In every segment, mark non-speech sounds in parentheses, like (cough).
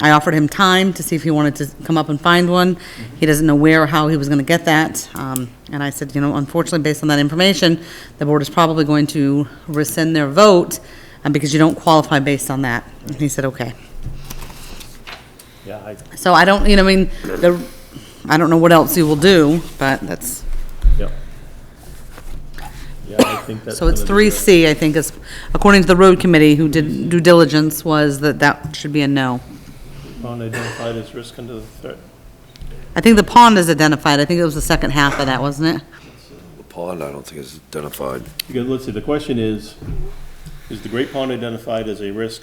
I offered him time to see if he wanted to come up and find one. He doesn't know where or how he was going to get that. Um, And I said, you know, unfortunately, based on that information, the board is probably going to rescind their vote uh, because you don't qualify based on that. And he said, okay. Yeah, I, So I don't, you know, I mean, the, I don't know what else you will do, but that's, yeah. Yeah, I think that's. so it's gonna be three C, I think, is, according to the road committee who did due diligence, was that that should be a no. the Pond identified as risk under the threat. I think the pond is identified. I think it was the second half of that, wasn't it? The pond, I don't think is identified. Because, let's see, the question is, is the Great Pond identified as a risk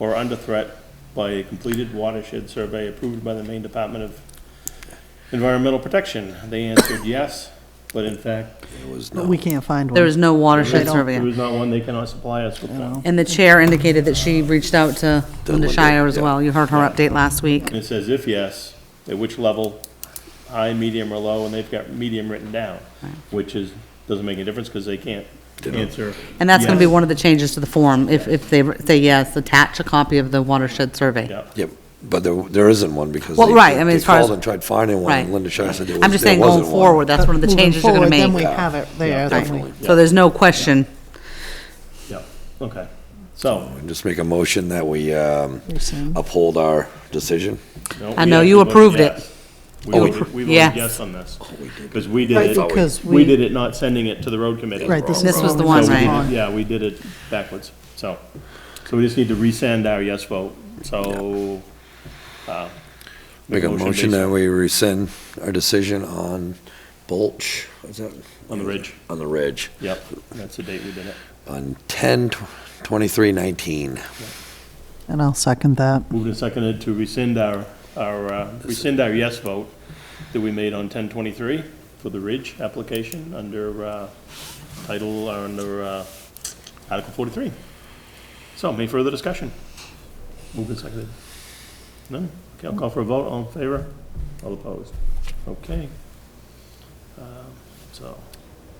or under threat by a completed watershed survey approved by the Maine Department of Environmental Protection? They answered yes, but in fact, It was But not. we can't find one. There is no watershed there survey. was not one, they cannot supply us with one. And the chair indicated that she reached out to Linda Linda, Shire as yeah. well. You heard her update last week. And it says if yes, at which level, high, medium, or low, and they've got medium written down, which is, doesn't make a difference because they can't answer. And that's gonna be yes. one of the changes to the form. If, if they say yes, attach a copy of the watershed survey. Yeah. Yeah, but there, there isn't one because. Well, they- right, I mean, they as far as- called and tried finding one, Right. and Linda Shire said there was. I'm just there saying going wasn't one. forward, that's one of the Moving changes you're gonna forward, make. Then we have it there, then we. Definitely. So there's no question. Yeah, okay. So. And Just make a motion that we um, Rescind. uphold our decision. no, I we know you actually approved voted it. yes. We Oh, we- voted, we yes. voted yes on this, because Oh, we Right, did because it, we- we did it not sending it to the road committee. Right, this is. This was the already one, So we did right? it- Yeah, we did it backwards, so, so we just need to resend our yes vote, so. uh, Make a motion that based we rescind our decision on Bulge, is that, On the ridge, on the ridge, yep, that's the date we did it. on ten twenty-three nineteen. And I'll second that. Moved and seconded to rescind our, our, uh, rescind our yes vote that we made on 1023 for the Ridge application under uh, title, uh, under uh, Article 43. So, any further discussion? Moved and seconded. None? Okay, I'll call for a vote. All in favor? All opposed? Okay. Um, So,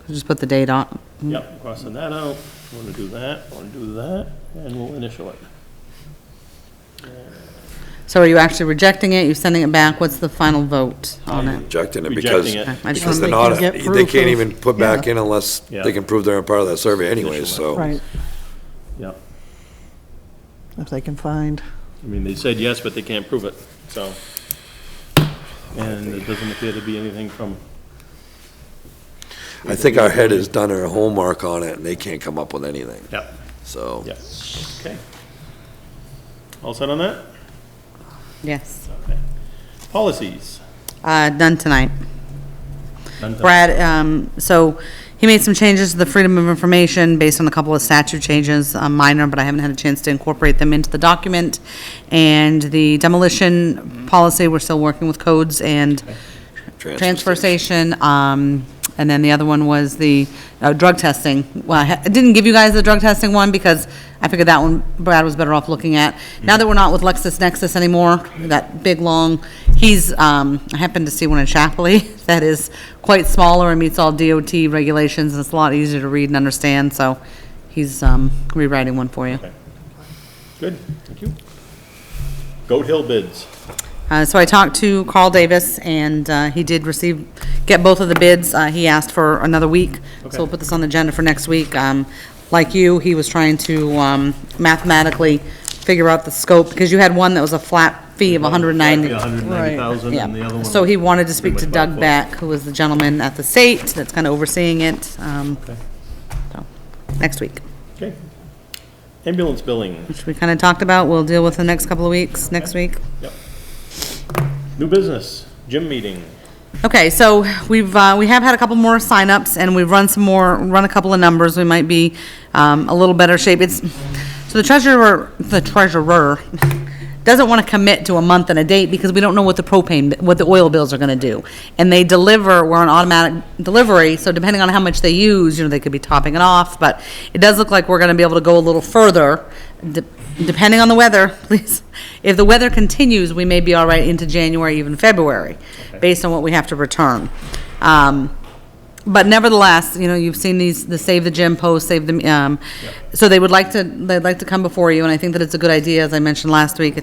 Just put the date on. yep, crossing that out. Want to do that, want to do that, and we'll initial it. So are you actually rejecting it? You're sending it back? What's the final vote on it? Rejecting it because, Rejecting it. Okay, I just because wanna make- they're not, They can get they proof can't of- even put back Yeah. in unless Yeah. they can prove they're a part of that survey anyways, so. Right, Yep. if they can find. I mean, they said yes, but they can't prove it, so. And it doesn't appear to be anything from, I think our head has done our homework on it, and they can't come up with anything, yeah, so. yeah, okay. All set on that? Yes. Okay. Policies. Uh, done tonight. None to- Brad, um, so he made some changes to the Freedom of Information based on a couple of statute changes, uh, minor, but I haven't had a chance to incorporate them into the document. And the demolition policy, we're still working with codes and transfer station. Um, and then the other one was the, uh, drug testing. Well, I ha- I didn't give you guys the drug testing one because I figured that one Brad was better off looking at. Now that we're not with LexisNexis anymore, that big, long, he's, um, I happened to see one in Chapley (laughs) that is quite smaller and meets all DOT regulations, and it's a lot easier to read and understand, so he's, um, rewriting one for you. Good, thank you. Goat Hill bids. Uh, So I talked to Carl Davis, and uh, he did receive, get both of the bids. Uh, He asked for another week, so we'll put this on the agenda for next week. Um, Like you, he was trying to um, mathematically figure out the scope, because you had one that was a flat fee of 190. hundred and ninety thousand, and the other Yeah, one. so he wanted to speak to pretty much Doug by Beck, who was the gentleman at the state that's kind of overseeing it, um, foot. so, next week, Okay. Okay. Ambulance billing, which we kind of talked about. We'll deal with the next couple of weeks, next week. yep. New business, gym meeting. Okay, so we've, uh, we have had a couple more signups, and we've run some more, run a couple of numbers, we might be, um, a little better shape. It's, so the treasurer, the treasurer doesn't want to commit to a month and a date because we don't know what the propane, what the oil bills are gonna do. And they deliver, we're on automatic delivery, so depending on how much they use, you know, they could be topping it off, but it does look like we're gonna be able to go a little further, de- depending on the weather, (laughs) please. If the weather continues, we may be all right into January, even February, based on what we have to return. Um, But nevertheless, you know, you've seen these, the Save the Gym posts, Save the, um, so they would like to, they'd like to come before you, and I think that it's a good idea, as I mentioned last week,